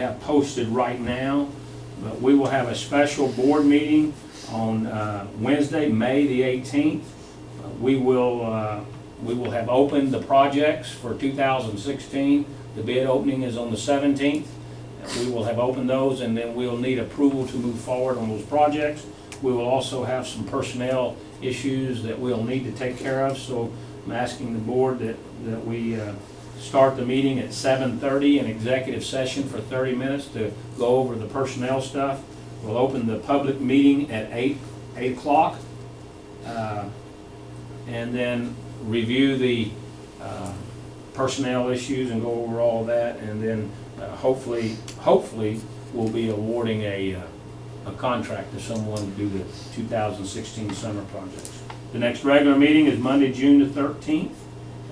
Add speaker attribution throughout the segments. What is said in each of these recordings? Speaker 1: have posted right now, but we will have a special board meeting on uh, Wednesday, May the 18th. Uh, We will, uh, we will have opened the projects for 2016. The bid opening is on the 17th. We will have opened those, and then we'll need approval to move forward on those projects. We will also have some personnel issues that we'll need to take care of, so I'm asking the board that, that we uh, start the meeting at 7:30, an executive session for 30 minutes to go over the personnel stuff. We'll open the public meeting at 8, 8 o'clock, uh, and then review the uh, personnel issues and go over all that, and then uh, hopefully, hopefully, we'll be awarding a, uh, a contract to someone to do the 2016 summer projects. The next regular meeting is Monday, June the 13th,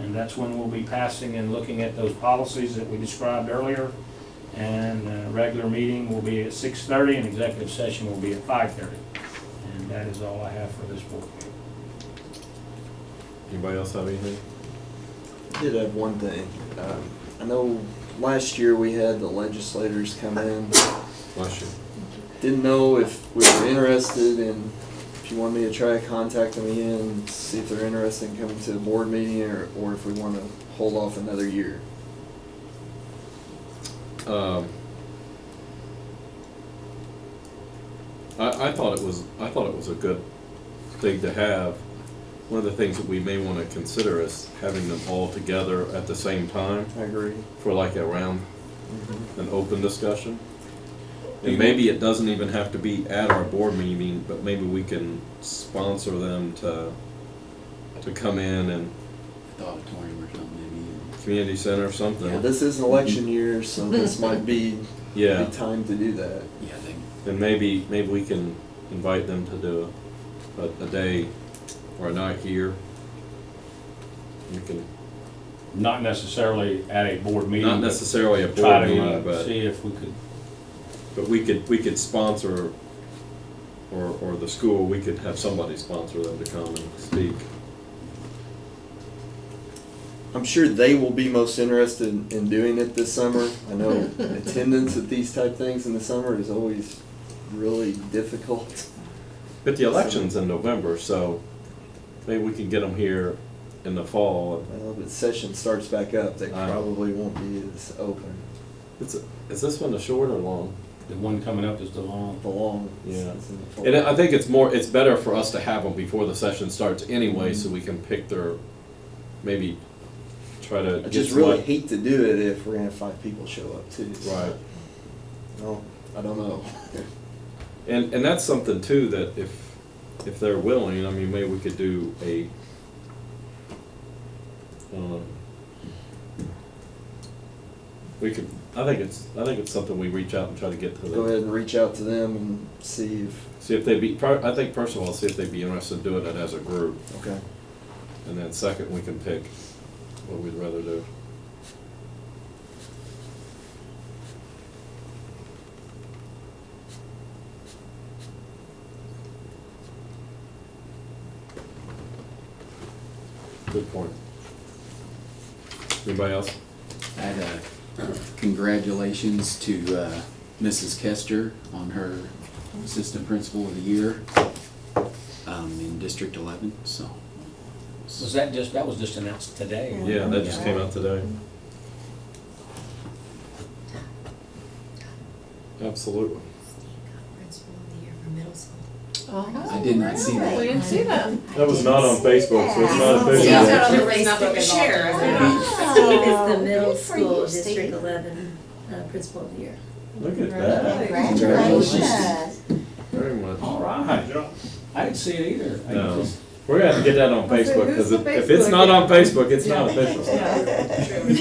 Speaker 1: and that's when we'll be passing and looking at those policies that we described earlier. And uh, regular meeting will be at 6:30, and executive session will be at 5:30. And that is all I have for this board meeting.
Speaker 2: Anybody else have anything?
Speaker 3: did have one thing. Um, I know last year we had the legislators come in.
Speaker 2: Bless you.
Speaker 3: Didn't know if we were interested in, if you want me to try contacting them again, see if they're interested in coming to the board meeting or, or if we want to hold off another year.
Speaker 2: Um, I, I thought it was, I thought it was a good thing to have. One of the things that we may want to consider is having them all together at the same time
Speaker 3: I agree.
Speaker 2: for like a round, an open discussion.
Speaker 1: You-
Speaker 2: And maybe it doesn't even have to be at our board meeting, but maybe we can sponsor them to, to come in and
Speaker 4: the auditorium or something,
Speaker 2: community center or something.
Speaker 3: Yeah, this is an election year, so this might be,
Speaker 2: Yeah.
Speaker 3: be time to do that.
Speaker 4: maybe. Yeah, they,
Speaker 2: Then maybe, maybe we can invite them to do a, a, a day or a night here. We can,
Speaker 1: Not necessarily at a board meeting.
Speaker 2: not
Speaker 1: but
Speaker 2: necessarily a
Speaker 1: Try
Speaker 2: board meeting,
Speaker 1: to uh,
Speaker 2: but,
Speaker 1: see if we could,
Speaker 2: but we could, we could sponsor, or, or the school, we could have somebody sponsor them to come and speak.
Speaker 3: I'm sure they will be most interested in, in doing it this summer. I know attendance at these type things in the summer is always really difficult.
Speaker 2: But the election's in November, so maybe we can get them here in the fall.
Speaker 3: Well, but session starts back up, they
Speaker 2: Aye.
Speaker 3: probably won't be as open,
Speaker 2: It's, is this one a short or long?
Speaker 1: the one coming up is the long.
Speaker 3: the long.
Speaker 2: Yeah.
Speaker 3: it's in the fall.
Speaker 2: And I think it's more, it's better for us to have them before the session starts anyway, so we can pick their, maybe try to.
Speaker 3: I
Speaker 2: get
Speaker 3: just really
Speaker 2: select-
Speaker 3: hate to do it if we're gonna have five people show up too. so,
Speaker 2: Right,
Speaker 3: No, I don't know.
Speaker 2: and, and that's something too, that if, if they're willing, I mean, maybe we could do a, um, we could, I think it's, I think it's something we reach out and try to get to
Speaker 3: Go
Speaker 2: them.
Speaker 3: ahead and reach out to them and see if,
Speaker 2: See if they'd be, fir- I think first of all, see if they'd be interested in doing it as a group,
Speaker 3: okay,
Speaker 2: and then second, we can pick what we'd rather do. Good point. Anybody else?
Speaker 4: had uh congratulations to uh, Mrs. Kester on her Assistant Principal of the Year um, in District 11, so.
Speaker 1: Was that just, that was just announced today?
Speaker 2: Yeah, that just came out today. Absolutely.
Speaker 5: Principal of the year for middle school.
Speaker 4: I did not see that.
Speaker 6: We didn't see them.
Speaker 2: That was not on Facebook, so it's not
Speaker 7: Oh,
Speaker 5: Yeah.
Speaker 2: official.
Speaker 5: Yeah.
Speaker 6: So there was nothing to share, is there?
Speaker 5: Steve is the middle
Speaker 8: Good for
Speaker 5: school,
Speaker 8: you,
Speaker 5: District
Speaker 8: Steve.
Speaker 5: Eleven, uh, Principal of the Year.
Speaker 2: Look at that,
Speaker 8: Congratulations.
Speaker 2: very much.
Speaker 1: All right. I didn't see it either. I
Speaker 2: No.
Speaker 1: just-
Speaker 2: We're gonna have to get that on
Speaker 6: I said,
Speaker 2: Facebook,
Speaker 6: who's
Speaker 2: because
Speaker 6: the
Speaker 2: if if it's
Speaker 6: Facebook
Speaker 2: not on
Speaker 6: guy?
Speaker 2: Facebook, it's not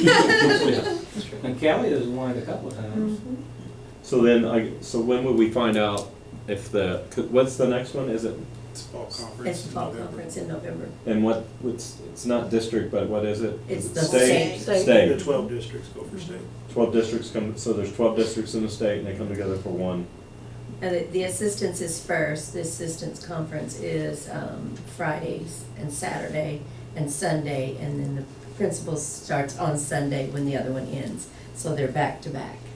Speaker 6: Yeah.
Speaker 2: official.
Speaker 1: And Kelly has won it a couple of times.
Speaker 2: So then, I, so when will we find out if the, could- what's the next one, is it,
Speaker 7: It's fall conference.
Speaker 5: It's the fall
Speaker 7: in November.
Speaker 5: conference in November.
Speaker 2: and what, it's, it's not district, but what is it?
Speaker 5: It's
Speaker 2: Is it
Speaker 5: the
Speaker 2: State,
Speaker 5: state.
Speaker 7: The
Speaker 2: state,
Speaker 7: twelve districts go for state.
Speaker 2: twelve districts come, so there's twelve districts in the state, and they come together for one.
Speaker 5: And the- the assistance is first, the assistance conference is um, Fridays and Saturday and Sunday, and then the principal starts on Sunday when the other one ends, so they're back to back.